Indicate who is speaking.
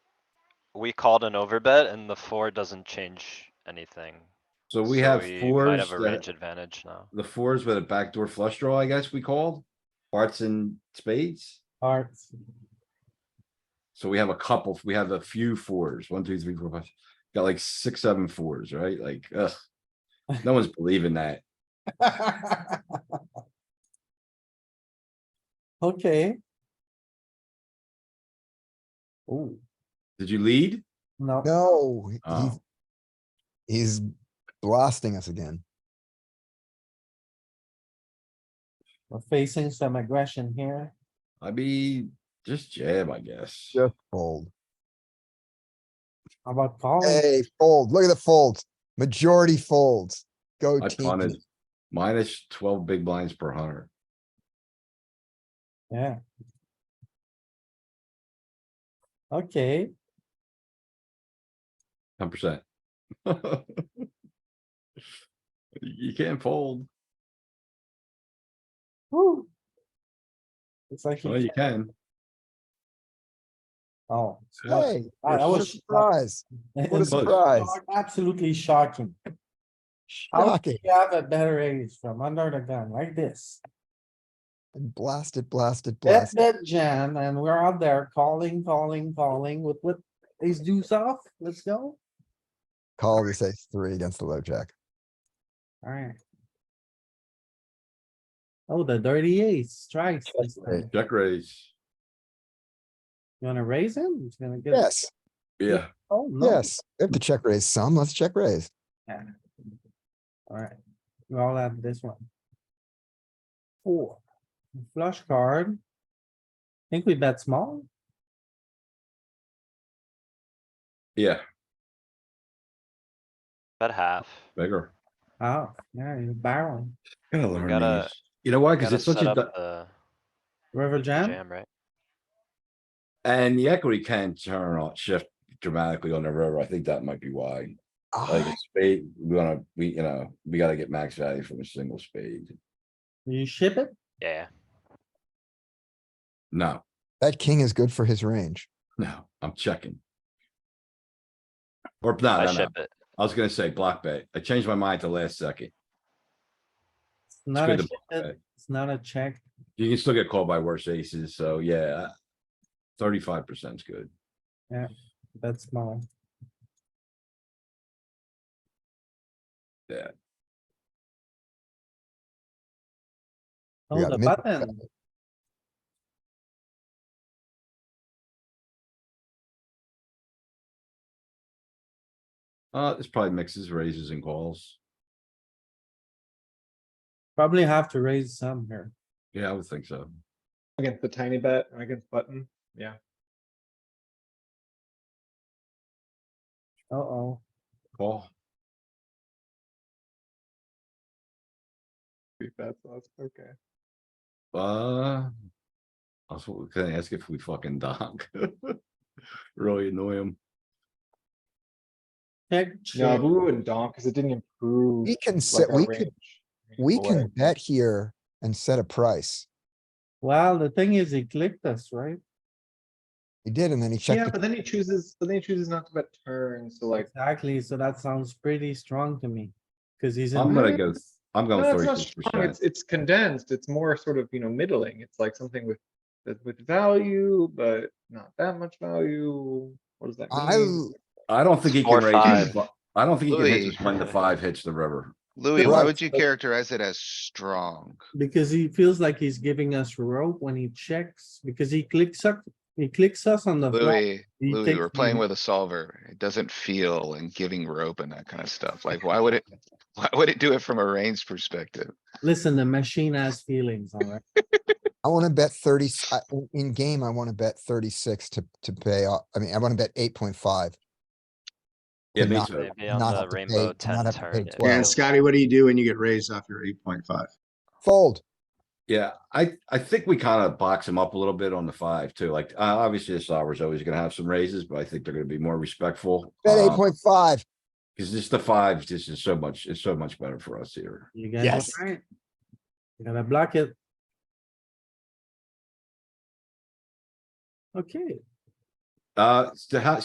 Speaker 1: we called an overbet and the four doesn't change anything.
Speaker 2: So we
Speaker 1: So
Speaker 2: have
Speaker 1: Might
Speaker 2: fours,
Speaker 1: have a
Speaker 2: that-
Speaker 1: range advantage now.
Speaker 2: the fours with a backdoor flush draw, I guess we called. Hearts and spades.
Speaker 3: hearts.
Speaker 2: So we have a couple, we have a few fours, one, two, three, four, five, got like six, seven fours, right? Like, ugh. No one's believing that.
Speaker 3: Okay. Oh,
Speaker 2: Did you lead?
Speaker 3: no,
Speaker 4: No, he-
Speaker 2: Oh.
Speaker 4: he's blasting us again.
Speaker 3: we're facing some aggression here.
Speaker 2: I'd be just jam, I guess.
Speaker 4: Just fold.
Speaker 3: How about calling?
Speaker 4: Hey, fold. Look at the folds. Majority folds. Go
Speaker 2: I punted
Speaker 4: team.
Speaker 2: minus twelve big blinds per hundred.
Speaker 3: Yeah. Okay,
Speaker 2: Ten percent. You can't fold.
Speaker 3: woo. It's like,
Speaker 2: Well,
Speaker 3: you-
Speaker 2: you can.
Speaker 3: oh,
Speaker 4: Hey,
Speaker 3: I I
Speaker 4: what a
Speaker 3: was.
Speaker 4: surprise. What a
Speaker 2: Close.
Speaker 4: surprise.
Speaker 3: Absolutely shocking. How do
Speaker 4: Shocking.
Speaker 3: you have a better ace from under the gun like this?
Speaker 4: And blasted, blasted,
Speaker 3: That's
Speaker 4: blasted.
Speaker 3: that jam and we're out there calling, calling, calling with what ace deuce off. Let's go.
Speaker 4: Call this ace three against the low jack.
Speaker 3: Alright. Oh, the dirty ace strikes. this
Speaker 4: Right.
Speaker 3: time.
Speaker 2: Check raise.
Speaker 3: You wanna raise him? He's gonna get.
Speaker 4: Yes,
Speaker 2: Yeah,
Speaker 3: Oh, no.
Speaker 4: yes. We have to check raise some. Let's check raise.
Speaker 3: Alright, we all have this one. Four, flush card. Think we bet small?
Speaker 2: yeah,
Speaker 1: Bet half.
Speaker 2: bigger.
Speaker 3: Oh, yeah, you're barreling.
Speaker 2: Gotta
Speaker 1: We
Speaker 2: learn
Speaker 1: gotta-
Speaker 2: these. You know why? Cause
Speaker 1: Gotta
Speaker 2: it's such
Speaker 1: set
Speaker 2: a,
Speaker 1: up
Speaker 2: di-
Speaker 1: the
Speaker 3: River jam?
Speaker 1: Jam, right?
Speaker 2: and the equity can turn on, shift dramatically on the river. I think that might be why. Like
Speaker 4: Ah,
Speaker 2: a spade, we wanna, we, you know, we gotta get max value from a single spade.
Speaker 3: Do you ship it?
Speaker 1: Yeah,
Speaker 2: No,
Speaker 4: That king is good for his range.
Speaker 2: no, I'm checking. Or no,
Speaker 1: I
Speaker 2: no, no.
Speaker 1: ship it.
Speaker 2: I was gonna say block bet. I changed my mind to last second.
Speaker 3: It's not
Speaker 2: good to
Speaker 3: a, ship it,
Speaker 2: bet.
Speaker 3: it's not a check.
Speaker 2: You can still get called by worse aces, so yeah. uh, Thirty-five percent is good.
Speaker 3: That's small.
Speaker 2: Yeah.
Speaker 3: Oh,
Speaker 4: We got
Speaker 3: the
Speaker 4: min-
Speaker 3: button.
Speaker 2: Uh, this probably mixes raises and calls.
Speaker 3: Probably have to raise some here.
Speaker 2: Yeah, I would think so.
Speaker 5: Against the tiny bet, or against button, yeah.
Speaker 3: Uh-oh,
Speaker 2: Call.
Speaker 5: three bets, that's okay.
Speaker 2: Uh. I was gonna ask if we fucking donk. Really annoy him.
Speaker 3: check,
Speaker 5: No,
Speaker 3: check.
Speaker 5: but we wouldn't donk, cause it didn't improve.
Speaker 4: We can
Speaker 5: like,
Speaker 4: sit,
Speaker 5: our
Speaker 4: we could,
Speaker 5: range in any
Speaker 4: we
Speaker 5: way.
Speaker 4: can bet here and set a price.
Speaker 3: Well, the thing is, he clicked us, right?
Speaker 4: He did, and then he checked.
Speaker 5: Yeah,
Speaker 4: the-
Speaker 5: but then he chooses, but then he chooses not to bet turn, so like,
Speaker 3: Exactly, so that sounds pretty strong to me, cause he's.
Speaker 2: I'm
Speaker 3: in-
Speaker 2: gonna go, I'm going
Speaker 5: no, it's not
Speaker 2: thirty-six
Speaker 5: strong,
Speaker 2: percent.
Speaker 5: it's, it's condensed, it's more sort of, you know, middling, it's like something with, that- with value, but not that much value. What does that
Speaker 4: I,
Speaker 5: mean?
Speaker 4: l-
Speaker 2: I don't think he
Speaker 1: Four,
Speaker 2: can raise. his
Speaker 6: five.
Speaker 2: bu- I don't think he can hit
Speaker 6: Louis.
Speaker 2: us when the five hits the river.
Speaker 6: Louis, why
Speaker 4: Right.
Speaker 6: would you characterize it as strong?
Speaker 3: Because he feels like he's giving us rope when he checks, because he clicks up, he clicks us on the. flop.
Speaker 6: Louis,
Speaker 3: He
Speaker 6: Louis,
Speaker 3: takes
Speaker 6: we're
Speaker 3: the-
Speaker 6: playing with a solver. It doesn't feel and giving rope and that kind of stuff. Like, why would it? Why would it do it from a range perspective?
Speaker 3: Listen, the machine has feelings, alright?
Speaker 4: I wanna bet thirty, s- I- in game, I wanna bet thirty-six to, to pay off. I mean, I wanna bet eight point five.
Speaker 2: Yeah, me
Speaker 4: not-
Speaker 2: too.
Speaker 1: Maybe on
Speaker 4: not
Speaker 1: the
Speaker 4: have to pay-
Speaker 1: rainbow
Speaker 4: not
Speaker 1: ten
Speaker 4: have to pay
Speaker 1: turn. it
Speaker 4: 12.
Speaker 7: And
Speaker 4: Yeah, Wow.
Speaker 1: feels-
Speaker 7: Scotty, what do you do when you get raised off your eight point five?
Speaker 4: Fold.
Speaker 2: Yeah, I, I think we kind of box him up a little bit on the five too. Like, uh, obviously, the solver's always gonna have some raises, but I think they're gonna be more respectful. Uh,
Speaker 4: Bet eight point five.
Speaker 2: Cause just the fives, this is so much, it's so much better for us here.
Speaker 3: You guys,
Speaker 4: Yes.
Speaker 3: alright? You gotta block it. Okay.
Speaker 2: Uh, so how,